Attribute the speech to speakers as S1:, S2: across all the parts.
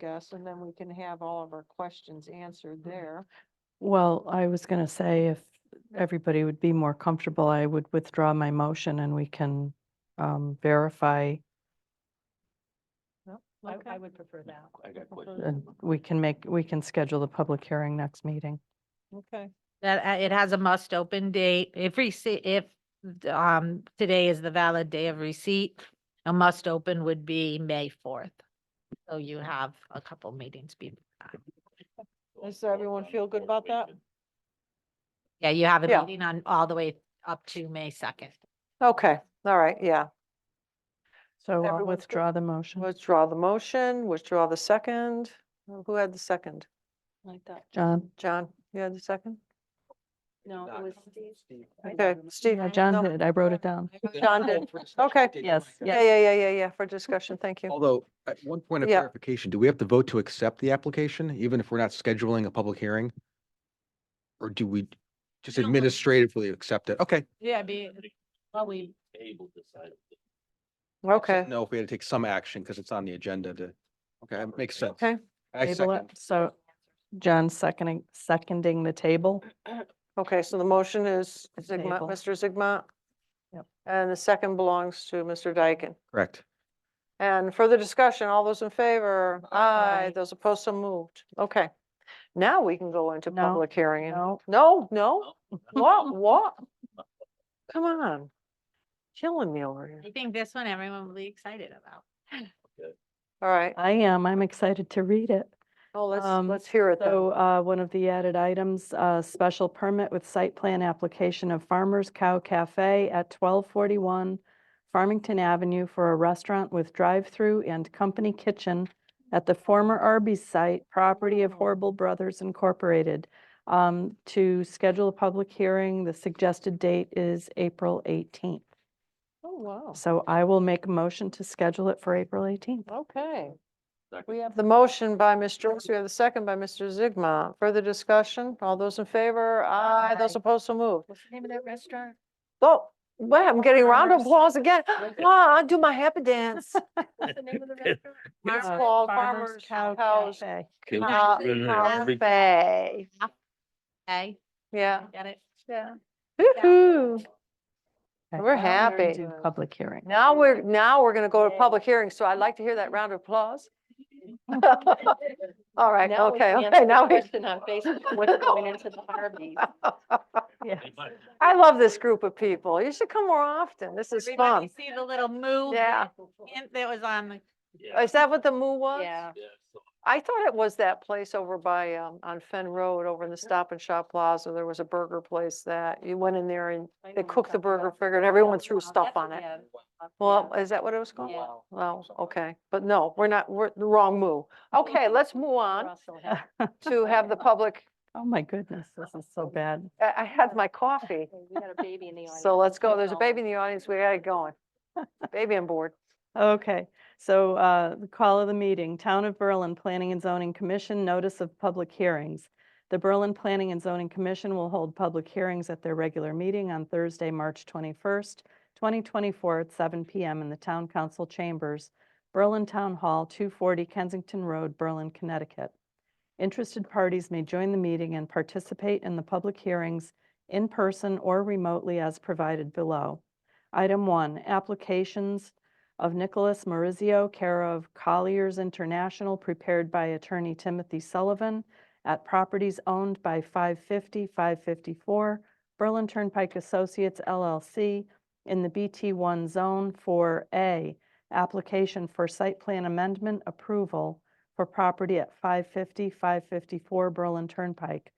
S1: discuss, and then we can have all of our questions answered there.
S2: Well, I was going to say if everybody would be more comfortable, I would withdraw my motion and we can um, verify
S3: I,
S1: Okay.
S3: I would prefer that.
S4: I
S1: Uh-huh.
S4: got questions.
S2: and we can make, we can schedule the public hearing next meeting.
S1: Okay,
S5: That, uh, it has a must open date. If receipt, if, um, today is the valid day of receipt, a must open would be May fourth. So you have a couple meetings before that.
S1: Does everyone feel good about that?
S5: Yeah, you have a
S1: Yeah.
S5: meeting on all the way up to May second.
S1: okay, all right, yeah.
S2: So
S1: Everyone's
S2: I'll
S1: good?
S2: withdraw the motion.
S1: Withdraw the motion, withdraw the second. Who had the second?
S3: Like that.
S2: John,
S1: John, you had the second?
S3: No, it was Steve. I
S1: Okay,
S3: don't
S1: Steve.
S2: yeah, John
S1: no,
S2: did, I wrote it down.
S1: John did. Okay.
S2: Yes,
S1: Yeah, yeah, yeah, yeah, yeah, for discussion, thank you.
S4: Although, at one point of
S1: Yeah.
S4: clarification, do we have to vote to accept the application, even if we're not scheduling a public hearing? Or do we just
S5: We don't vote.
S4: administratively accept it? Okay.
S5: Yeah, be, well, we,
S1: Okay,
S4: No, if we had to take some action because it's on the agenda to, okay, it makes sense.
S1: okay,
S4: I
S2: table
S4: second.
S2: it. So John seconding, seconding the table.
S1: okay, so the motion is Zigma,
S2: Table.
S1: Mr. Zigma.
S2: Yep.
S1: And the second belongs to Mr. Dyken.
S4: Correct.
S1: And further discussion, all those in favor? Aye,
S2: Aye.
S1: those opposed, so moved. Okay. Now we can go into
S2: No,
S1: public hearing.
S2: No,
S1: No, no, what, what? Come on. Killing me over here.
S5: I think this one everyone will be excited about.
S1: All right,
S2: I am. I'm excited to read it.
S1: oh, let's,
S2: Um,
S1: let's hear it though.
S2: So uh, one of the added items, uh, special permit with site plan application of Farmer's Cow Cafe at 1241 Farmington Avenue for a restaurant with drive-through and company kitchen at the former Arby's site, property of
S1: Oh.
S2: Horrible Brothers Incorporated. Um, To schedule a public hearing, the suggested date is April 18th.
S1: Oh, wow.
S2: So I will make a motion to schedule it for April 18th.
S1: Okay. We have the motion by Ms. Joyce, we have the second by Mr. Zigma. Further discussion? All those in favor? Aye, those
S3: Aye.
S1: opposed, so moved.
S3: What's the name of that restaurant?
S1: Oh, wow, I'm getting round of
S3: Farmers.
S1: applause again. Ah, I do my happy dance.
S3: What's the name of the restaurant? Uh,
S1: It's
S5: Farmers-
S1: called Farmers Cows
S2: Cafe.
S1: Ca- Cafe.
S5: Okay,
S1: Yeah.
S5: got it?
S3: Yeah.
S1: Woo-hoo.
S2: Okay.
S1: We're
S2: Now we're
S1: happy.
S2: into Public hearing.
S1: Now we're, now we're going to go to
S3: Yay.
S1: public hearing, so I'd like to hear that round of applause. All right,
S3: Now we
S1: okay, okay,
S3: can answer
S1: now
S3: the
S1: we.
S3: Question on Facebook, what's going into the Harvey?
S2: Yes.
S1: I love this group of people. You should come more often. This is
S5: Everybody
S1: fun.
S5: see the little move?
S1: Yeah.
S5: That was on the
S1: Is that what the moo was?
S3: Yeah.
S1: I thought it was that place over by, um, on Fen Road, over in the Stop and Shop Plaza. There was a burger place that you went in there and
S3: I know
S1: they
S3: what
S1: cooked the
S3: you're talking
S1: burger,
S3: about.
S1: figured everyone threw
S3: Wow,
S1: stuff
S3: that's
S1: on
S3: what-
S1: it.
S3: yeah, yeah.
S1: Well, is that what it was called?
S3: Yeah.
S1: Well, okay, but no, we're not, we're the wrong move. Okay, let's move on
S3: Russell had-
S1: to have the public,
S2: Oh, my goodness, this is so bad.
S1: I, I had my coffee.
S3: We got a baby in the audience.
S1: So let's go.
S3: Keep
S1: There's a
S3: going.
S1: baby in the audience. We got it going. Baby on board.
S2: Okay, so uh, the call of the meeting, Town of Berlin Planning and Zoning Commission, notice of public hearings. The Berlin Planning and Zoning Commission will hold public hearings at their regular meeting on Thursday, March 21st, 2024 at 7 PM in the Town Council Chambers, Berlin Town Hall, 240 Kensington Road, Berlin, Connecticut. Interested parties may join the meeting and participate in the public hearings in person or remotely as provided below. Item one, applications of Nicholas Marizio, care of Colliers International, prepared by attorney Timothy Sullivan at properties owned by 550, 554 Berlin Turnpike Associates LLC in the BT1 Zone 4A, application for site plan amendment approval for property at 550, 554 Berlin Turnpike.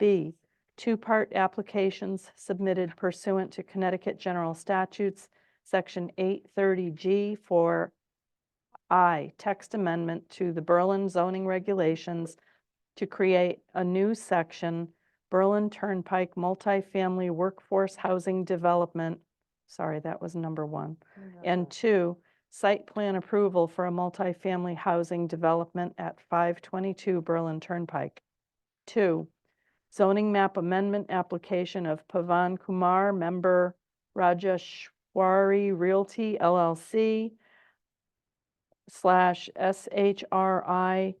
S2: B, two-part applications submitted pursuant to Connecticut General Statutes Section 830G for I, text amendment to the Berlin zoning regulations to create a new section, Berlin Turnpike Multifamily Workforce Housing Development. Sorry, that was number one. And two, site plan approval for a multifamily housing development at 522 Berlin Turnpike. Two, zoning map amendment application of Pavan Kumar, member Rajeshwari Realty LLC slash SHRI